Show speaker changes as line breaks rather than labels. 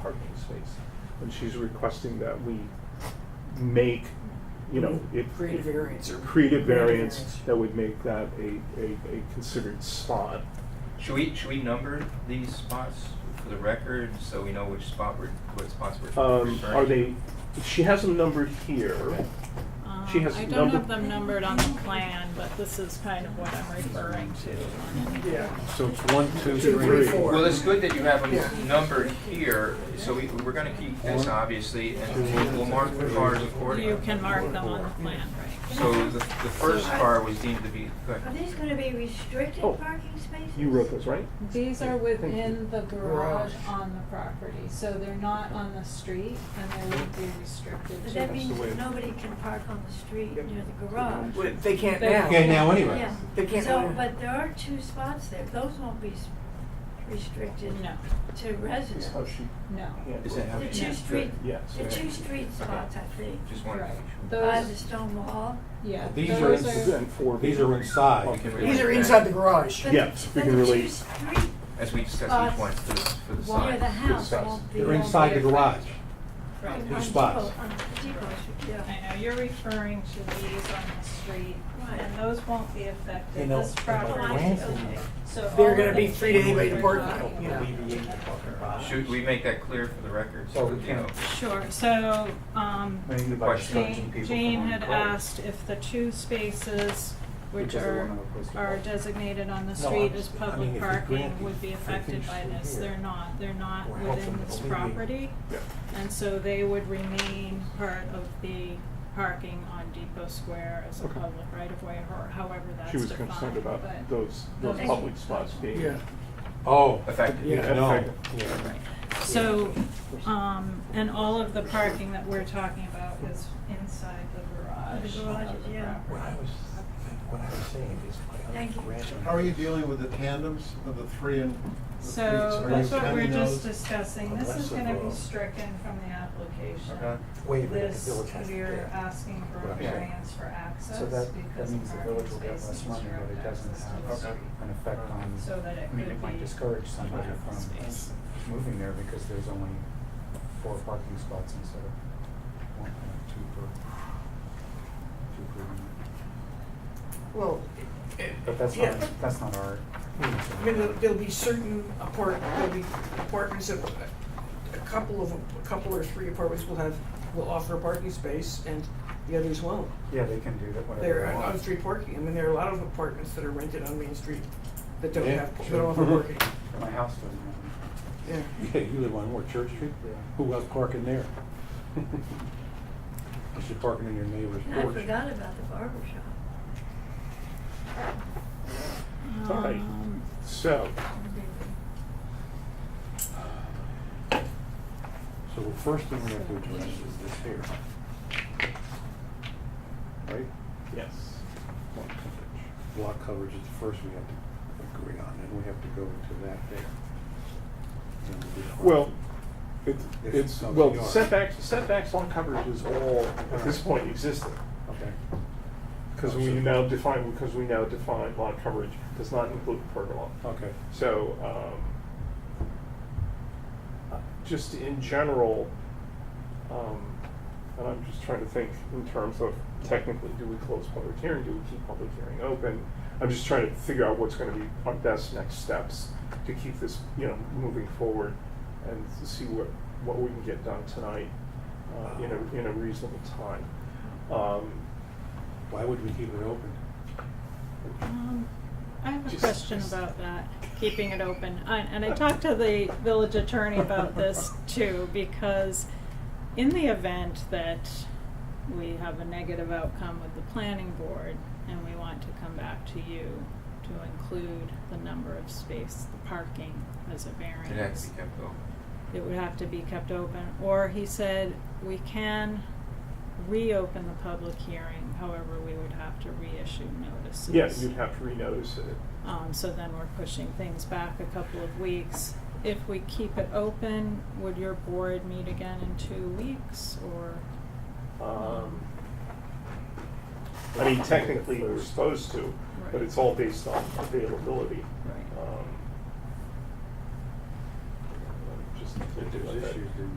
parking space. And she's requesting that we make, you know, it.
Create a variance or.
Create a variance
variance.
that would make that a, a, a considered spot.
Should we, should we number these spots for the record, so we know which spot we're, what spots we're referring?
Um, are they, she has them numbered here.
Um,
She has
I don't
number-
have them numbered on the plan, but this is kind of what I'm referring to.
Yeah.
So it's one, two,
Two,
three.
three, four.
Well, it's good that you have them
Yeah.
numbered here, so we, we're gonna keep this, obviously, and we'll mark the cars accordingly.
You can mark them on the plan, right?
So the, the first car was deemed to be, go
Are
ahead.
these gonna be restricted
Oh.
parking spaces?
You wrote those, right?
These are within the garage
Garage.
on the property, so they're not on the street and they would be restricted
But
to.
that means that nobody can park on the street near the garage.
Well, They can't
They-
now.
Okay, now anyway.
Yeah,
They can't
so,
own-
but there are two spots there, those won't be s- restricted
No,
to
That's
residents.
how she
no.
handled
Is that how
The
you-
two street,
Yes.
the two street spots, I think,
Just wanted to
Right.
make sure.
by the
Those,
stone wall.
yeah,
These are
those
ins-
are,
And four.
These are inside.
We can
These
relate
are
that
inside the garage.
But-
Yes, we
but
can
the
relate.
two street
As we discussed
spots
each one for the, for the
near
sign.
the house
size.
won't be.
They're
on
inside the
their-
garage.
on-
Right.
on
spots.
Depot- on Depot Street,
I
yeah.
know, you're referring to these on the street,
Right.
and those won't be affected,
You know,
this
and by
property,
ransom,
so.
They're
all
gonna
of
be
the
free to anybody to
things
park
we're
on,
talking
you know.
about in the garage.
Should we make that clear for the record?
Oh, we
you
can.
know?
Sure, so, um,
Question.
Jane, Jane had asked if the two spaces which
Because they
are,
wanna replace the
are
wall.
designated on the
No,
street
I'm
as
just- I mean, if
public
you
parking
grant
would be
these, I
affected
think
by
should be
this,
here.
they're not, they're not
Or help
within
them
this
alleviate.
property.
Yeah.
And so they would remain part of the parking on Depot Square as a
Okay.
public right of way, or however that's
She
defined,
was concerned about
but-
those, those
Those-
public spots being.
Yeah.
Oh.
Affected.
Yeah, no. Yeah.
So, um, and all of the parking that we're talking about is inside the garage.
The garages,
of the
yeah.
property.
What I was, what I was saying is my
Thank
other
you.
grandson.
How are you dealing with the tandems of the three and the three?
So
Are you
that's what we're
counting
just
those?
Oh,
discussing, this is
Unless
gonna
it
be
will-
stricken from the application.
Okay.
Wait a minute, the
This,
village has to
we're
pay.
asking for a
Yeah.
variance for access
So that, that
because
means the
the
village
parking
will get
space is
less money, but
direct
it doesn't
access to the
have
street.
an effect on,
So that it
I mean,
could
it might
be
discourage somebody
parking space.
from moving there because there's only four parking spots instead of one, two per, two per unit.
Well, it-
But that's
yeah,
not, that's not our.
but, I mean, there'll- there'll be certain apart, there'll be apartments that, a couple of, a couple or three apartments will have, will offer a parking space and the others won't.
Yeah, they can do that,
There
whatever
are
they want.
on-street parking, I mean, there are a lot of apartments that are rented on Main Street that don't
Yeah,
have, that
sure.
don't offer parking,
My house doesn't have
yeah.
Yeah, you live on what, Church Street?
any. Yeah.
Who else parking there? You should parking in your neighbor's
And I
porch.
forgot about the barber shop.
All right.
Um,
So,
So the first thing we have to address is this here. Right?
yes.
Lot coverage. Lot coverage is the first we have to agree on, and we have to go into that there. Then we'll be fine.
Well, it,
If
it's,
it's not
well,
PR.
setbacks, setbacks on coverage is all at this point existing.
Okay.
Because we now define, because we now define lot coverage does not include pergola.
Okay.
So, um, just in general, um, and I'm just trying to think in terms of technically, do we close public hearing, do we keep public hearing open? I'm just trying to figure out what's gonna be our best next steps to keep this, you know, moving forward and to see what, what we can get done tonight, uh, in a, in a reasonable time. Um,
Why would we keep it open?
Um, I have a
Just-
question about that, keeping it open. I- And I talked to the village attorney about this too, because in the event that we have a negative outcome with the planning board and we want to come back to you to include the number of space, the parking as a variance.
It has to be kept open.
It would have to be kept open, or he said, we can reopen the public hearing, however, we would have to reissue notices.
yeah, you'd have to renotice it.
Um, so then we're pushing things back a couple of weeks. If we keep it open, would your board meet again in two weeks or?
Um, I mean, technically, we're supposed to, but it's all based on availability.
Right.
Um,